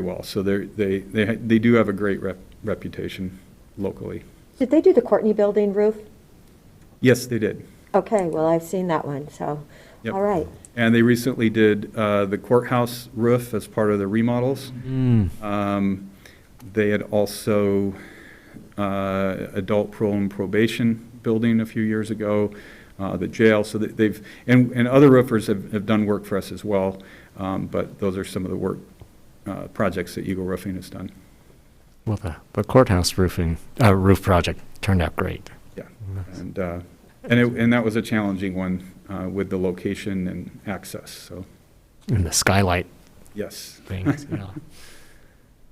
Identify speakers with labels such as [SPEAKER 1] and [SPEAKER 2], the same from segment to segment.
[SPEAKER 1] well. So they're, they, they, they do have a great rep, reputation locally.
[SPEAKER 2] Did they do the Courtney Building roof?
[SPEAKER 1] Yes, they did.
[SPEAKER 2] Okay, well, I've seen that one, so,
[SPEAKER 1] Yep.
[SPEAKER 2] all right.
[SPEAKER 1] And they recently did uh, the courthouse roof as part of the remodels. Um, They had also uh, adult parole and probation building a few years ago, uh, the jail, so that they've, and, and other roofers have, have done work for us as well, um, but those are some of the work, uh, projects that Eagle Roofing has done.
[SPEAKER 3] Well, the, the courthouse roofing, uh, roof project turned out great.
[SPEAKER 1] Yeah, and, uh, and it, and that was a challenging one, uh, with the location and access, so,
[SPEAKER 3] And the skylight
[SPEAKER 1] yes.
[SPEAKER 3] things, yeah.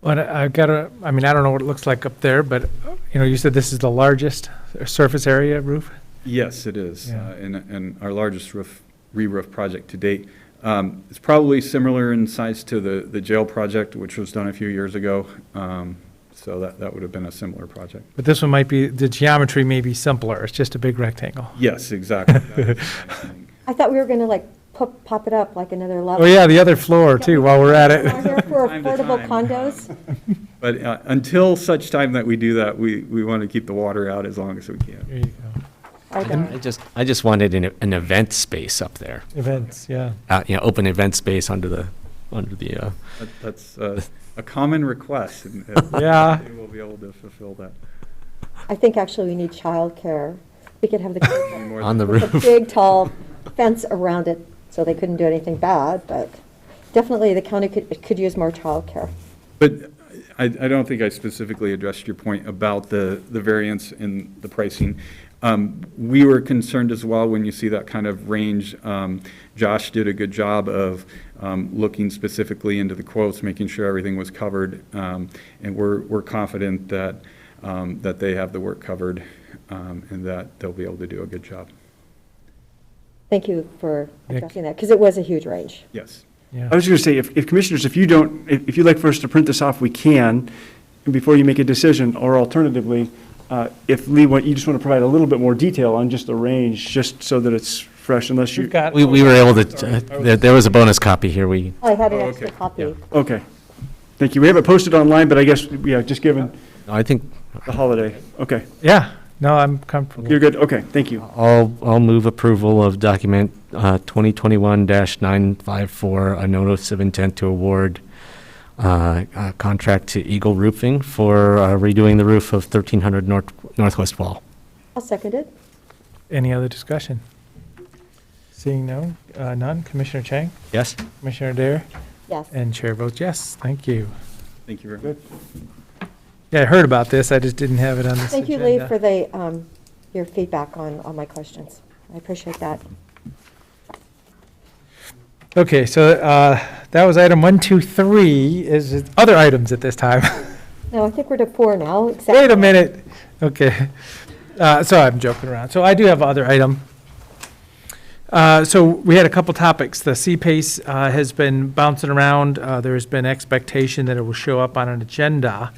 [SPEAKER 4] Well, I- I've got a, I mean, I don't know what it looks like up there, but, uh, you know, you said this is the largest surface area roof?
[SPEAKER 1] Yes, it is,
[SPEAKER 4] Yeah.
[SPEAKER 1] uh, and, and our largest roof, re-roof project to date. Um, It's probably similar in size to the, the jail project, which was done a few years ago, um, so that, that would have been a similar project.
[SPEAKER 4] But this one might be, the geometry may be simpler, it's just a big rectangle.
[SPEAKER 1] Yes, exactly. That was the same thing.
[SPEAKER 2] I thought we were going to like pop, pop it up like another level.
[SPEAKER 4] Oh, yeah, the other floor too, while we're at
[SPEAKER 2] Are
[SPEAKER 4] it.
[SPEAKER 2] there for
[SPEAKER 1] Time to
[SPEAKER 2] affordable
[SPEAKER 1] time.
[SPEAKER 2] condos?
[SPEAKER 1] But uh, until such time that we do that, we, we want to keep the water out as long as we can.
[SPEAKER 4] There you go.
[SPEAKER 2] Are
[SPEAKER 3] I
[SPEAKER 2] there?
[SPEAKER 3] just, I just wanted an, an event space up there,
[SPEAKER 4] Events, yeah.
[SPEAKER 3] uh, you know, open event space under the, under the, uh,
[SPEAKER 1] That- That's uh, a common request, and uh,
[SPEAKER 4] Yeah.
[SPEAKER 1] they will be able to fulfill that.
[SPEAKER 2] I think actually we need childcare. We could have
[SPEAKER 1] Any
[SPEAKER 2] the,
[SPEAKER 1] more
[SPEAKER 3] on the
[SPEAKER 1] than-
[SPEAKER 2] with a
[SPEAKER 3] roof.
[SPEAKER 2] big tall fence around it, so they couldn't do anything bad, but definitely the county could, could use more childcare.
[SPEAKER 1] But I, I don't think I specifically addressed your point about the, the variance in the pricing. Um, We were concerned as well when you see that kind of range. Um, Josh did a good job of um, looking specifically into the quotes, making sure everything was covered. Um, And we're, we're confident that, um, that they have the work covered um, and that they'll be able to do a good job.
[SPEAKER 2] Thank you for
[SPEAKER 4] Nick.
[SPEAKER 2] addressing that, because it was a huge range.
[SPEAKER 1] Yes.
[SPEAKER 4] Yeah.
[SPEAKER 3] Oh,
[SPEAKER 5] I was going to say, if if commissioners, if you don't, if if you'd like for us to print this off, we can, before you make a decision, or alternatively, uh, if Lee, want- you just want to provide a little bit more detail on just the range, just so that it's fresh, unless you,
[SPEAKER 4] We've got,
[SPEAKER 3] We, we were able to, uh, there, there was a bonus copy here, we,
[SPEAKER 2] I had an
[SPEAKER 1] Oh,
[SPEAKER 2] extra
[SPEAKER 1] okay.
[SPEAKER 2] copy.
[SPEAKER 5] okay. Thank you. We have it posted online, but I guess, yeah, just given
[SPEAKER 3] I think,
[SPEAKER 5] the holiday. Okay,
[SPEAKER 4] yeah, no, I'm comfortable.
[SPEAKER 5] you're good, okay, thank you.
[SPEAKER 3] I'll, I'll move approval of document, uh, twenty twenty-one nine five four, a notice of intent to award, uh, a contract to Eagle Roofing for uh, redoing the roof of thirteen hundred north, northwest wall.
[SPEAKER 2] I'll second it.
[SPEAKER 4] Any other discussion? Seeing no, uh, none, Commissioner Chang,
[SPEAKER 3] Yes?
[SPEAKER 4] Commissioner Dare,
[SPEAKER 2] Yes.
[SPEAKER 4] and Chair votes yes, thank you.
[SPEAKER 1] Thank you very much.
[SPEAKER 4] Yeah, I heard about this, I just didn't have it on this
[SPEAKER 2] Thank
[SPEAKER 4] agenda.
[SPEAKER 2] you, Lee, for the, um, your feedback on, on my questions. I appreciate that.
[SPEAKER 4] Okay, so uh, that was item one, two, three, is it other items at this time.
[SPEAKER 2] No, I think we're to four now, except.
[SPEAKER 4] Wait a minute, okay. Uh, So I'm joking around. So I do have other item. Uh, So we had a couple topics. The CPACE uh, has been bouncing around. Uh, There's been expectation that it will show up on an agenda.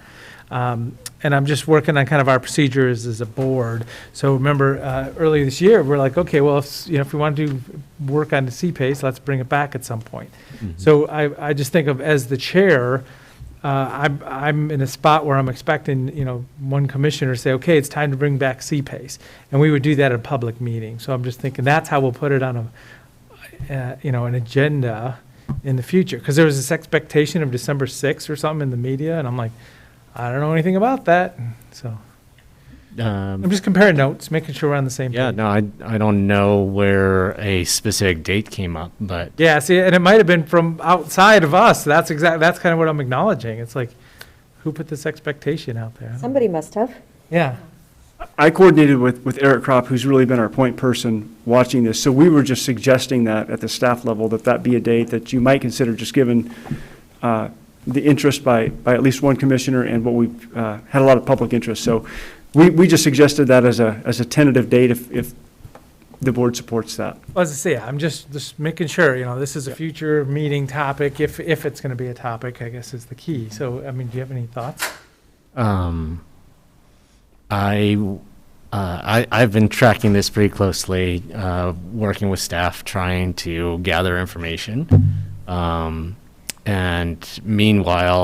[SPEAKER 4] Um, And I'm just working on kind of our procedures as a board. So remember, uh, earlier this year, we're like, okay, well, if, you know, if we want to work on the CPACE, let's bring it back at some point. So I, I just think of, as the chair, uh, I'm, I'm in a spot where I'm expecting, you know, one commissioner to say, okay, it's time to bring back CPACE. And we would do that at a public meeting. So I'm just thinking, that's how we'll put it on a, uh, you know, an agenda in the future. Because there was this expectation of December 6th or something in the media, and I'm like, I don't know anything about that. So
[SPEAKER 3] Um,
[SPEAKER 4] I'm just comparing notes, making sure we're on the same page.
[SPEAKER 3] Yeah, no, I, I don't know where a specific date came up, but
[SPEAKER 4] Yeah, see, and it might have been from outside of us. That's exact, that's kind of what I'm acknowledging. It's like, who put this expectation out there?
[SPEAKER 2] Somebody must have.
[SPEAKER 4] Yeah.
[SPEAKER 5] I coordinated with, with Eric Kropp, who's really been our point person watching this. So we were just suggesting that at the staff level, that that be a date that you might consider, just given uh, the interest by, by at least one commissioner and what we've uh, had a lot of public interest. So we, we just suggested that as a, as a tentative date if, if the board supports that.
[SPEAKER 4] Well, As I say, I'm just, just making sure, you know, this is a future meeting topic, if, if it's going to be a topic, I guess is the key. So, I mean, do you have any thoughts?
[SPEAKER 3] um, I, uh, I, I've been tracking this pretty closely, uh, working with staff, trying to gather information. Um, and meanwhile,